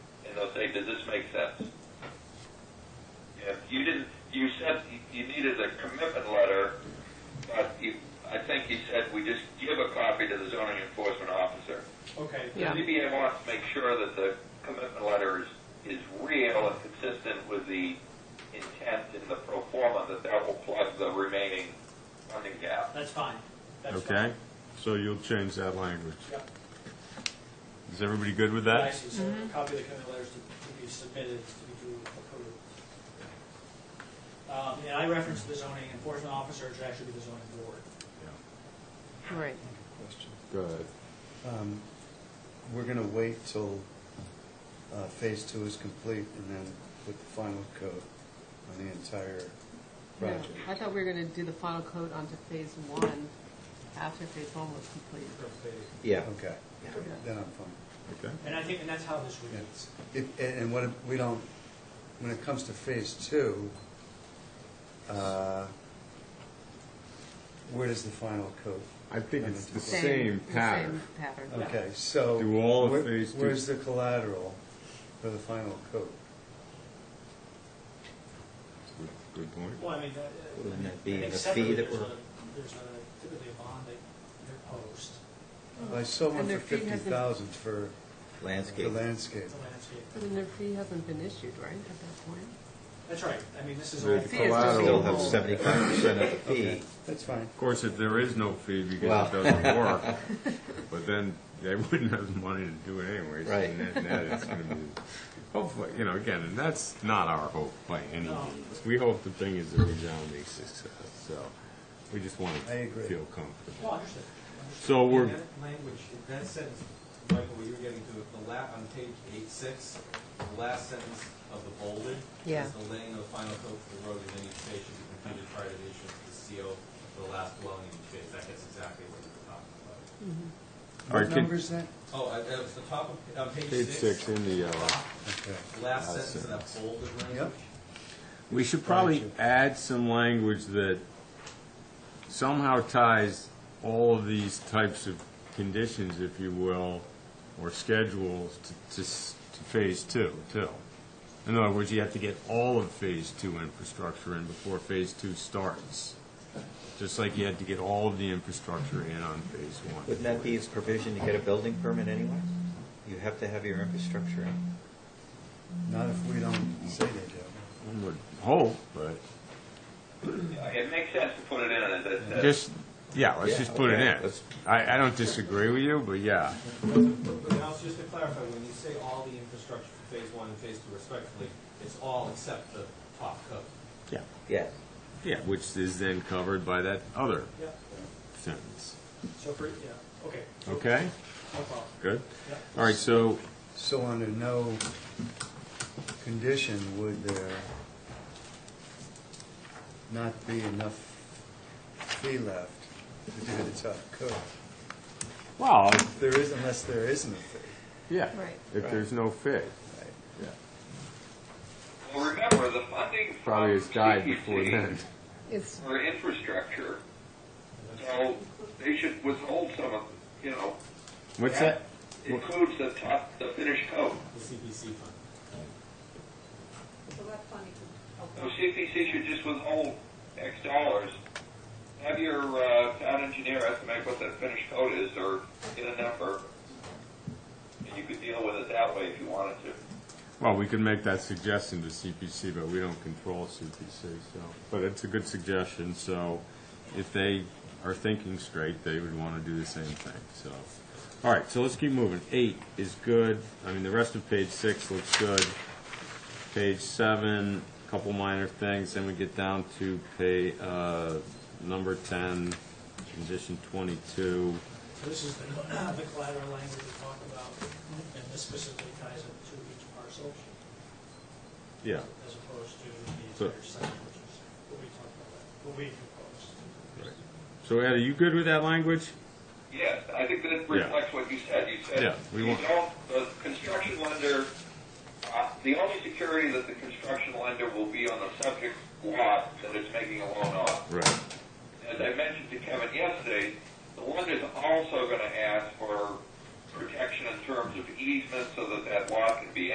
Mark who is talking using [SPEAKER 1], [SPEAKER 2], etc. [SPEAKER 1] they'll say, does this make sense? Yeah, you didn't, you said you needed a commitment letter, but you, I think you said we just give a copy to the zoning enforcement officer.
[SPEAKER 2] Okay.
[SPEAKER 1] The
[SPEAKER 3] Yeah.
[SPEAKER 1] ZBA wants to make sure that the commitment letter is, is real and consistent with the intent in the pro forma, that that will plug the remaining funding gap.
[SPEAKER 2] That's fine. That's
[SPEAKER 4] Okay,
[SPEAKER 2] fine.
[SPEAKER 4] so you'll change that language.
[SPEAKER 2] Yep.
[SPEAKER 4] Is everybody good with
[SPEAKER 2] I
[SPEAKER 4] that?
[SPEAKER 2] see, so a copy of the commitment letters to to be submitted, to be duly approved. Um, And I referenced the zoning enforcement officer, it should actually be the zoning board.
[SPEAKER 3] Right.
[SPEAKER 5] Question.
[SPEAKER 4] Go ahead.
[SPEAKER 5] Um, We're going to wait till uh, phase two is complete and then put the final coat on the entire
[SPEAKER 3] Yeah.
[SPEAKER 5] project.
[SPEAKER 3] I thought we were gonna do the final coat onto phase one after phase one was complete.
[SPEAKER 6] Yeah.
[SPEAKER 5] Okay, then I'm fine.
[SPEAKER 4] Okay,
[SPEAKER 2] And I think, and that's how this
[SPEAKER 5] Yeah.
[SPEAKER 2] reads.
[SPEAKER 5] If- And and what, if we don't, when it comes to phase two, uh, where does the final coat?
[SPEAKER 4] I think it's the
[SPEAKER 5] Same-
[SPEAKER 4] same
[SPEAKER 3] the
[SPEAKER 4] pattern.
[SPEAKER 3] Same pattern.
[SPEAKER 5] Okay, so.
[SPEAKER 4] Do all of
[SPEAKER 5] where-
[SPEAKER 4] phase two.
[SPEAKER 5] Where's the collateral for the final coat?
[SPEAKER 4] Good- Good point.
[SPEAKER 2] Well, I mean, uh,
[SPEAKER 6] Wouldn't that be
[SPEAKER 2] I think
[SPEAKER 6] the fee
[SPEAKER 2] separately,
[SPEAKER 6] that
[SPEAKER 2] there's
[SPEAKER 6] we're-
[SPEAKER 2] a, there's a, typically a bond that they're post,
[SPEAKER 5] I sold
[SPEAKER 3] Oh.
[SPEAKER 5] one
[SPEAKER 3] And
[SPEAKER 5] for
[SPEAKER 3] their fee
[SPEAKER 5] fifty
[SPEAKER 3] hasn't-
[SPEAKER 5] thousand for the
[SPEAKER 6] Landscape.
[SPEAKER 2] the
[SPEAKER 5] landscape.
[SPEAKER 3] But
[SPEAKER 2] landscape.
[SPEAKER 3] then their fee hasn't been issued, right, at that point?
[SPEAKER 2] That's right, I mean, this is
[SPEAKER 4] The
[SPEAKER 2] all.
[SPEAKER 3] I see it's just
[SPEAKER 4] collateral-
[SPEAKER 6] Still have
[SPEAKER 3] Oh.
[SPEAKER 6] seventy-five percent of the
[SPEAKER 5] Okay,
[SPEAKER 6] fee.
[SPEAKER 5] that's fine.
[SPEAKER 4] Of course, if there is no fee because
[SPEAKER 6] Well.
[SPEAKER 4] it doesn't work, but then they wouldn't have the money to do it anyway. so
[SPEAKER 6] Right.
[SPEAKER 4] net- net it's gonna be, hopefully, you know, again, and that's not our hope by any
[SPEAKER 2] No.
[SPEAKER 4] means. We hope the thing is a resounding success, so we just want
[SPEAKER 5] I
[SPEAKER 4] to
[SPEAKER 5] agree.
[SPEAKER 4] feel
[SPEAKER 2] No,
[SPEAKER 4] comfortable.
[SPEAKER 2] Oh, understood.
[SPEAKER 4] So
[SPEAKER 7] In
[SPEAKER 4] we're,
[SPEAKER 7] that language, in that sentence, Michael, what you were getting to, the la, on page eight six, the last sentence of the bolded
[SPEAKER 3] Yeah.
[SPEAKER 7] is the laying of the final coat for the road in any space should be completed prior to the issuance of the CO for the last dwelling in each phase. That gets exactly what you were talking about.
[SPEAKER 4] All right,
[SPEAKER 5] What
[SPEAKER 4] can-
[SPEAKER 5] number's that?
[SPEAKER 7] Oh, I- that was the top of, on
[SPEAKER 4] page
[SPEAKER 7] page
[SPEAKER 4] six
[SPEAKER 7] six,
[SPEAKER 4] in the uh, yellow.
[SPEAKER 7] top,
[SPEAKER 5] Okay.
[SPEAKER 7] last
[SPEAKER 4] Last
[SPEAKER 7] sentence of that
[SPEAKER 4] sentence.
[SPEAKER 7] bolded
[SPEAKER 5] Yep.
[SPEAKER 7] language.
[SPEAKER 4] We should probably
[SPEAKER 5] Gotcha.
[SPEAKER 4] add some language that somehow ties all of these types of conditions, if you will, or schedules to, to, s- to phase two, too. In other words, you have to get all of phase two infrastructure in before phase two starts. Just like you had to get all of the infrastructure in on phase one.
[SPEAKER 6] Wouldn't that be its provision to get a building permit anyway? You have to have your infrastructure in.
[SPEAKER 5] Not if we don't say they do.
[SPEAKER 4] One would hope, but
[SPEAKER 1] It makes sense to put it in as a, as a
[SPEAKER 4] just, yeah, let's
[SPEAKER 6] Yeah,
[SPEAKER 4] just put it
[SPEAKER 6] okay,
[SPEAKER 4] in.
[SPEAKER 6] let's-
[SPEAKER 4] I, I don't disagree with you, but yeah.
[SPEAKER 7] But but now, just to clarify, when you say all the infrastructure for phase one and phase two respectively, it's all except the top coat.
[SPEAKER 4] Yeah.
[SPEAKER 6] Yeah.
[SPEAKER 4] Yeah, which is then covered by that other
[SPEAKER 2] Yeah,
[SPEAKER 4] sentence.
[SPEAKER 2] so for, yeah, okay,
[SPEAKER 4] Okay,
[SPEAKER 2] no problem,
[SPEAKER 4] good.
[SPEAKER 2] yeah.
[SPEAKER 4] All right, so,
[SPEAKER 5] So under no condition would there not be enough fee left to do the top coat?
[SPEAKER 4] well,
[SPEAKER 5] If There is, unless there isn't a fee.
[SPEAKER 4] yeah,
[SPEAKER 3] Right.
[SPEAKER 4] if there's no fit.
[SPEAKER 5] right?
[SPEAKER 4] yeah,
[SPEAKER 1] Well, remember, the funding from
[SPEAKER 4] Probably has died before
[SPEAKER 1] CPC
[SPEAKER 4] then.
[SPEAKER 3] It's,
[SPEAKER 1] For infrastructure, so they should withhold some of, you know.
[SPEAKER 4] What's that?
[SPEAKER 1] Includes the top, the finished coat.
[SPEAKER 7] The CPC fund.
[SPEAKER 8] So that funding could help.
[SPEAKER 1] So CPC should just withhold X dollars. Have your, uh, town engineer estimate what that finished coat is, or get a number. And you could deal with it that way if you wanted to.
[SPEAKER 4] Well, we could make that suggestion to CPC, but we don't control CPC, so, but it's a good suggestion, so if they are thinking straight, they would want to do the same thing, so. All right, so let's keep moving. Eight is good, I mean, the rest of page six looks good. Page seven, couple minor things, then we get down to pay, uh, number ten, condition twenty-two.
[SPEAKER 2] So this is the the collateral language we talked about, and this specifically ties it to each parcel,
[SPEAKER 4] Yeah,
[SPEAKER 2] as opposed to the
[SPEAKER 4] So-
[SPEAKER 2] entire site, which is what we talked about, what we proposed.
[SPEAKER 4] Right. so Ed, are you good with that language?
[SPEAKER 1] Yes, I think that reflects what you said. You
[SPEAKER 4] Yeah,
[SPEAKER 1] said,
[SPEAKER 4] we
[SPEAKER 1] you
[SPEAKER 4] want-
[SPEAKER 1] don't, the construction lender, uh, the only security that the construction lender will be on the subject lot that it's making a loan on.
[SPEAKER 4] Right.
[SPEAKER 1] As I mentioned to Kevin yesterday, the lender's also going to ask for protection in terms of easement so that that lot can be